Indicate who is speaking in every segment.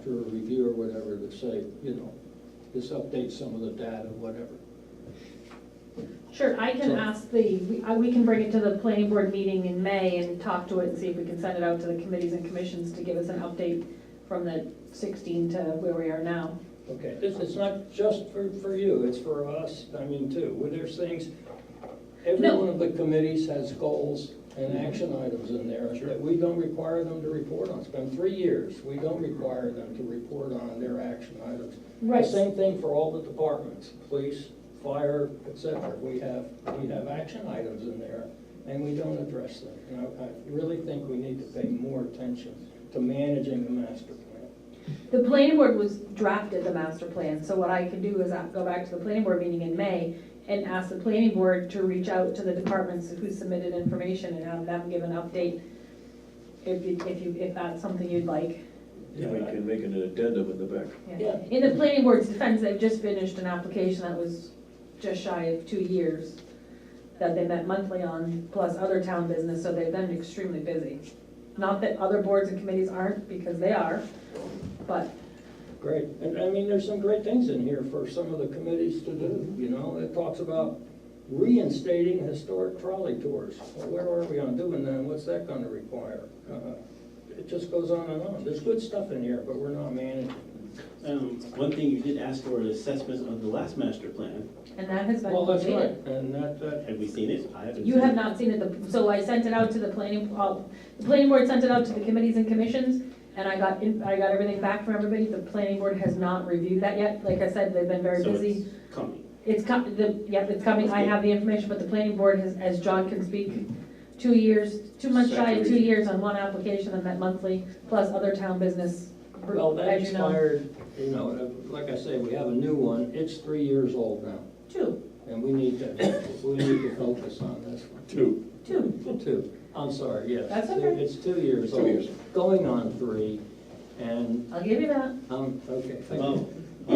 Speaker 1: after a review or whatever to say, you know, just update some of the data, whatever.
Speaker 2: Sure, I can
Speaker 1: So-
Speaker 2: ask the, we I- we can bring it to the planning board meeting in May and talk to it and see if we can send it out to the committees and commissions to give us an update from the 16 to where we are now.
Speaker 1: Okay, this is not just for, for you, it's for us, I mean, too, where there's things, every
Speaker 2: No.
Speaker 1: one of the committees has goals and action items in there that we don't require them to report on. It's been three years, we don't require them to report on their action items.
Speaker 2: Right.
Speaker 1: The same thing for all the departments, police, fire, et cetera. We have, we have action items in there, and we don't address them. And I, I really think we need to pay more attention to managing the master plan.
Speaker 2: The planning board was drafted the master plan, so what I can do is I- go back to the planning board meeting in May and ask the planning board to reach out to the departments who submitted information and have them give an update if you, if you, if that's something you'd like.
Speaker 3: And we can make an addendum in the back.
Speaker 2: Yeah.
Speaker 1: Yeah.
Speaker 2: In the planning board's defense, they've just finished an application that was just shy of two years that they met monthly on, plus other town business, so they've been extremely busy. Not that other boards and committees aren't, because they are, but
Speaker 1: Great, and I mean, there's some great things in here for some of the committees to do, you know, it talks about reinstating historic trolley tours. Well, Where are we on doing that, and what's that gonna require? Uh, It just goes on and on, there's good stuff in here, but we're not managing.
Speaker 4: Um, one thing you did ask for an assessment of the last master plan.
Speaker 2: And that has been
Speaker 1: Well, that's right,
Speaker 2: completed.
Speaker 1: and that, that,
Speaker 4: Have we seen it? I haven't.
Speaker 2: You
Speaker 4: seen
Speaker 2: have
Speaker 4: it.
Speaker 2: not seen it, the- so I sent it out to the planning, oh, the planning board sent it out to the committees and commissions, and I got, in- I got everything back from everybody. The planning board has not reviewed that yet. Like I said, they've been very
Speaker 4: So it's
Speaker 2: busy.
Speaker 4: Coming.
Speaker 2: It's com, the, yeah, it's coming, I have the information, but the planning board has, as John can speak, two years, two months shy of two
Speaker 4: Saturation.
Speaker 2: years on one application and that monthly, plus other town business,
Speaker 1: well, that
Speaker 2: as you know.
Speaker 1: expired, you know, uh, like I say, we have a new one, it's three years old now,
Speaker 2: Two,
Speaker 1: and we need to, we need to focus on this one.
Speaker 3: Two.
Speaker 2: two,
Speaker 1: Two, I'm sorry, yes.
Speaker 2: That's okay.
Speaker 1: It's two years
Speaker 3: Two
Speaker 1: old.
Speaker 3: years.
Speaker 1: Going on three, and,
Speaker 2: I'll give you that.
Speaker 1: um, okay, thank
Speaker 3: Oh,
Speaker 4: Well,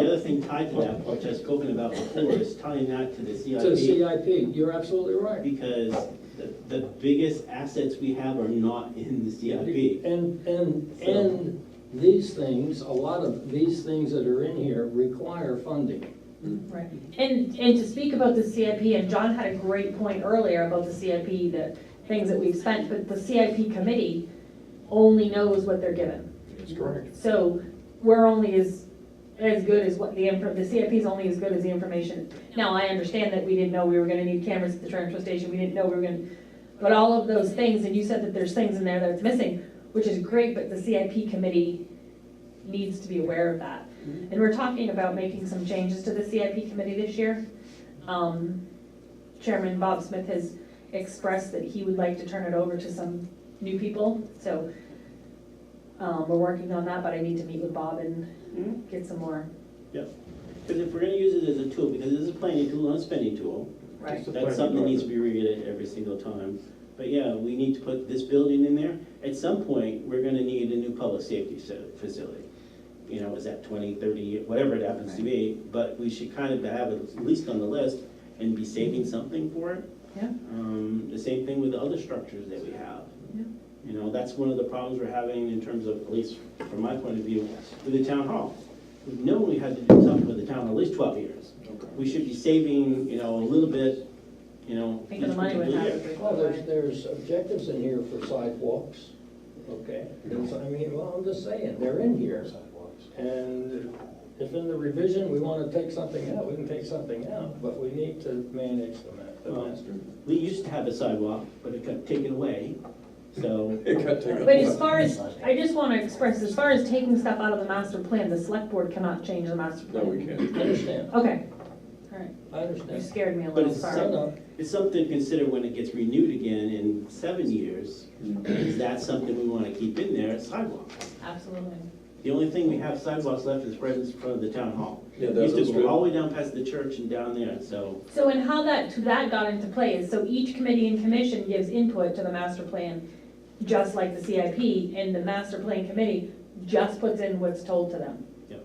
Speaker 1: you.
Speaker 4: the other thing tied to that, which I've spoken about before, is tying that to the
Speaker 1: To
Speaker 4: CIP.
Speaker 1: CIP, you're absolutely right.
Speaker 4: Because the, the biggest assets we have are not in the CIP.
Speaker 1: And, and, and these things, a lot of these things that are in here require funding.
Speaker 2: Right, and, and to speak about the CIP, and John had a great point earlier about the CIP, the things that we've spent, but the CIP committee only knows what they're given.
Speaker 3: That's correct.
Speaker 2: So we're only as, as good as what the, info- the CIP is only as good as the information. Now, I understand that we didn't know we were gonna need cameras at the transfer station, we didn't know we were gonna, but all of those things, and you said that there's things in there that's missing, which is great, but the CIP committee needs to be aware of that. And we're talking about making some changes to the CIP committee this year. Um, Chairman Bob Smith has expressed that he would like to turn it over to some new people, so um, we're working on that, but I need to meet with Bob and
Speaker 4: Mhm.
Speaker 2: get some more.
Speaker 4: Yep. Because if we're gonna use it as a tool, because this is a planning tool, not a spending tool,
Speaker 3: Right. It's a
Speaker 4: that's
Speaker 3: planning
Speaker 4: something that needs to
Speaker 3: document.
Speaker 4: be reviewed every single time. But yeah, we need to put this building in there. At some point, we're gonna need a new public safety so- facility. You know, is that twenty, thirty, whatever it happens to be, but we should kind of have it at least on the list and be saving something for it.
Speaker 2: Yeah.
Speaker 4: Um, the same thing with the other structures that we have.
Speaker 2: Yeah.
Speaker 4: You know, that's one of the problems we're having in terms of, at least from my point of view, with the town hall. We've known we had to do something with the town at least twelve years. We should be saving, you know, a little bit, you know.
Speaker 2: Think of the
Speaker 4: each
Speaker 2: money would
Speaker 4: particular
Speaker 2: have.
Speaker 4: year.
Speaker 1: Well, there's, there's objectives in here for sidewalks, okay? There's- I mean, well, I'm just saying, they're in here. And if in the revision, we want to take something out, we can take something out, but we need to manage the ma- the
Speaker 4: Well,
Speaker 1: master.
Speaker 4: We used to have a sidewalk, but it got taken away, so.
Speaker 3: It got taken.
Speaker 2: But as far as, I just want to express, as far as taking stuff out of the master plan, the select board cannot change the master
Speaker 3: No,
Speaker 2: plan.
Speaker 3: we can't.
Speaker 1: I understand,
Speaker 2: Okay, all right,
Speaker 1: I
Speaker 2: you
Speaker 1: understand.
Speaker 2: scared me a
Speaker 4: But
Speaker 2: little,
Speaker 4: it's
Speaker 1: No,
Speaker 2: sorry.
Speaker 1: no,
Speaker 4: It's something to consider when it gets renewed again in seven years. Is that something we wanna keep in there, sidewalks?
Speaker 2: Absolutely.
Speaker 4: The only thing we have sidewalks left is right in front of the town hall.
Speaker 3: Yeah,
Speaker 4: It
Speaker 3: that
Speaker 4: Used to
Speaker 3: looks
Speaker 4: go all
Speaker 3: good.
Speaker 4: the way down past the church and down there, so.
Speaker 2: So and how that, that got into play is, so each committee and commission gives input to the master plan, just like the CIP, and the master plan committee just puts in what's told to them.
Speaker 4: Yep.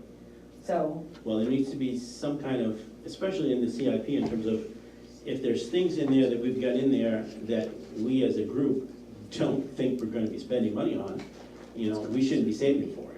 Speaker 2: So,
Speaker 4: Well, there needs to be some kind of, especially in the CIP, in terms of, if there's things in there that we've got in there that we as a group don't think we're gonna be spending money on, you know, we shouldn't be saving for. Uh,